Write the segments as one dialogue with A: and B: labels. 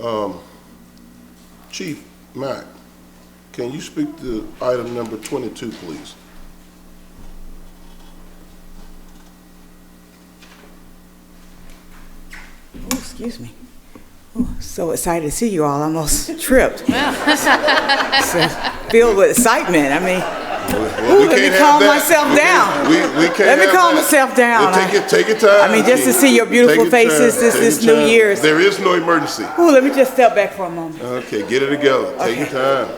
A: Um, Chief Mack, can you speak to item number 22, please?
B: Oh, excuse me. Oh, So excited to see you all, I almost tripped. So, Filled with excitement, I mean,
A: Well, we
B: Ooh, let me
A: can't have
B: calm
A: that.
B: myself
A: We can't-
B: down.
A: We, we can't
B: Let me
A: have
B: calm
A: that.
B: myself down.
A: Well, Take your, take your time.
B: I mean, just to
A: Chief.
B: see your beautiful
A: Take your
B: faces
A: time.
B: this-
A: Take
B: this
A: your
B: New
A: time.
B: Year's.
A: There is no emergency.
B: ooh, let me just step back for a moment.
A: Okay, get it together. Take your
B: Okay.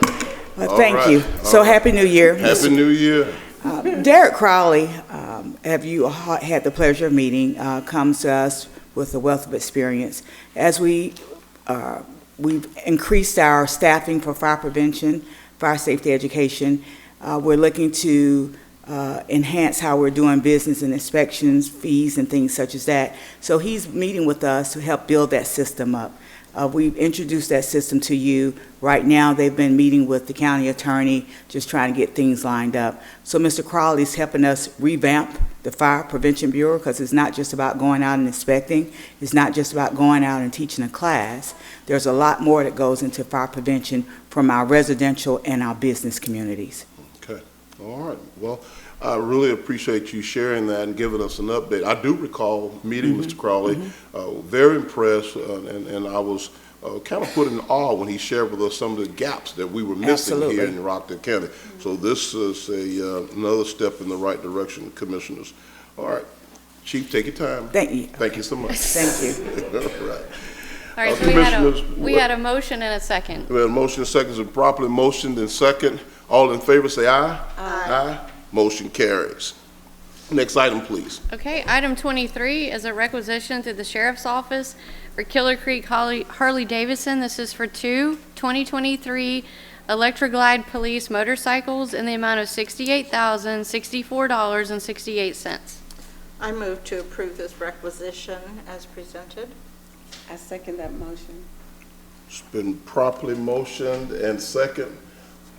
A: time.
B: Well,
A: All
B: thank
A: right,
B: you.
A: all
B: So
A: right.
B: Happy New Year.
A: Happy New Year.
B: Uh, Derek Crowley, um, have you ha- had the pleasure of meeting, uh, comes to us with a wealth of experience. As we, uh, we've increased our staffing for fire prevention, fire safety education, uh, we're looking to uh, enhance how we're doing business and inspections, fees, and things such as that. So he's meeting with us to help build that system up. Uh, We've introduced that system to you. Right now, they've been meeting with the county attorney, just trying to get things lined up. So Mr. Crowley's helping us revamp the Fire Prevention Bureau, because it's not just about going out and inspecting, it's not just about going out and teaching a class. There's a lot more that goes into fire prevention from our residential and our business communities.
A: All right, well, I really appreciate you sharing that and giving us an update. I do recall meeting Mr. Crowley, uh, very impressed, uh, and, and I was uh, kind of put in awe when he shared with us some of the gaps that we were missing here
B: Absolutely.
A: in Rockton County. So this is a, uh, another step in the right direction, Commissioners. All right, Chief, take your time.
B: Thank you.
A: Thank you so much.
B: Thank
A: you. All right.
C: All right,
A: Uh,
C: so we had
A: Commissioners,
C: a, we
A: what-
C: had a motion and a second.
A: We have a motion and seconds and properly motioned and second. All in favor, say aye. Aye. Motion carries. Next item, please.
C: Okay, item 23 is a requisition through the sheriff's office for Killer Creek Harley Davidson. This is for two 2023 Electroglide Police motorcycles in the amount of $68,064.68.
D: I move to approve this requisition as presented.
E: I second that motion.
A: It's been properly motioned and second.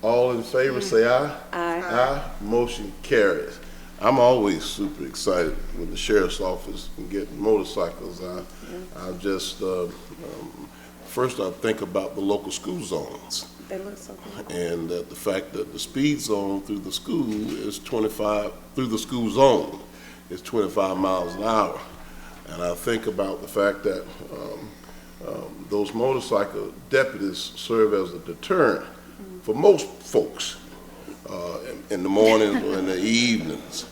A: All in favor, say aye.
E: Aye.
A: Aye. Motion carries. I'm always super excited when the sheriff's office can get motorcycles. I, I just, uh, um, first I think about the local school zones.
E: They look so good.
A: and that the fact that the speed zone through the school is 25, through the school zone is 25 miles an hour. And I think about the fact that um, um, those motorcycle deputies serve as a deterrent for most folks uh, in- in the mornings or in the evenings.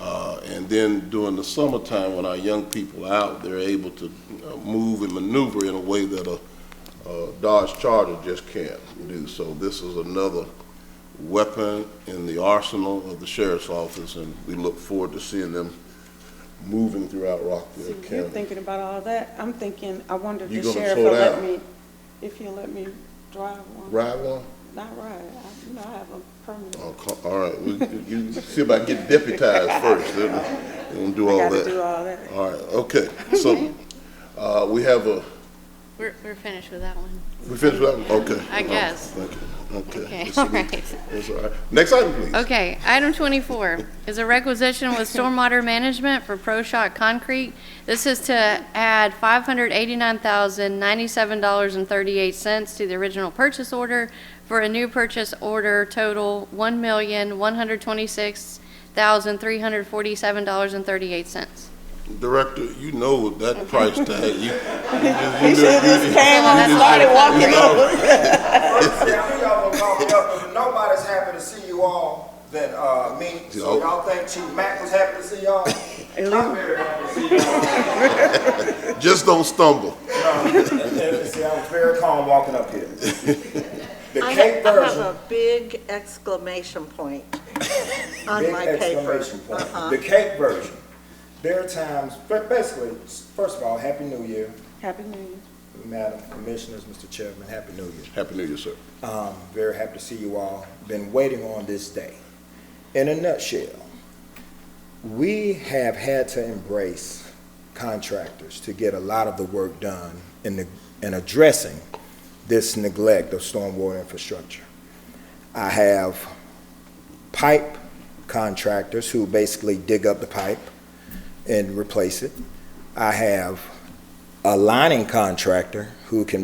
A: Uh, And then during the summertime, when our young people are out, they're able to uh, move and maneuver in a way that a uh, Dodge Charger just can't do. So this is another weapon in the arsenal of the sheriff's office, and we look forward to seeing them moving throughout Rockville
E: See, you're
A: County.
E: thinking about all that. I'm thinking, I wonder if
A: You
E: the
A: gonna
E: sheriff
A: slow
E: will let
A: down?
E: me, if he'll let me drive one.
A: Right one?
E: Not ride. I, you know, I have a permit.
A: Oh, co- All right, we, you see about getting deputized first, then we gonna do
E: I
A: all
E: gotta do
A: that.
E: all that.
A: All right, okay, so, uh, we have a,
C: We're, we're finished with that one.
A: we finished that one? Okay.
C: I guess.
A: Thank you, okay.
C: Okay,
A: It's-
C: all right.
A: It's all right. Next item, please.
C: Okay, item 24 is a requisition with stormwater management for Pro Shot Concrete. This is to add $589,097.38 to the original purchase order for a new purchase order total $1,126,347.38.
A: Director, you know that price tag. You, you just,
B: He
A: you
B: should've
A: know-
B: just
A: you-
B: came on and started walking over.
F: See, I knew y'all were gonna walk up, but nobody's happy to see you all than, uh, me. So
A: Yeah.
F: y'all think Chief Mack was happy to see y'all? I'm very happy to see y'all.
A: Just don't stumble.
F: See, I was very calm walking up here. The
D: I
F: Cape
D: have I have
F: version,
D: a big exclamation point on
F: big
D: my paper.
F: exclamation
D: Uh-huh.
F: point. The Cape version. There are times, but basically, first of all, Happy New Year,
E: Happy New Year.
F: Madam Commissioners, Mr. Chairman, Happy New Year.
A: Happy New Year, sir.
F: Um, very happy to see you all. Been waiting on this day. In a nutshell, we have had to embrace contractors to get a lot of the work done in, the, in addressing this neglect of stormwater infrastructure. I have pipe contractors who basically dig up the pipe and replace it. I have a lining contractor who can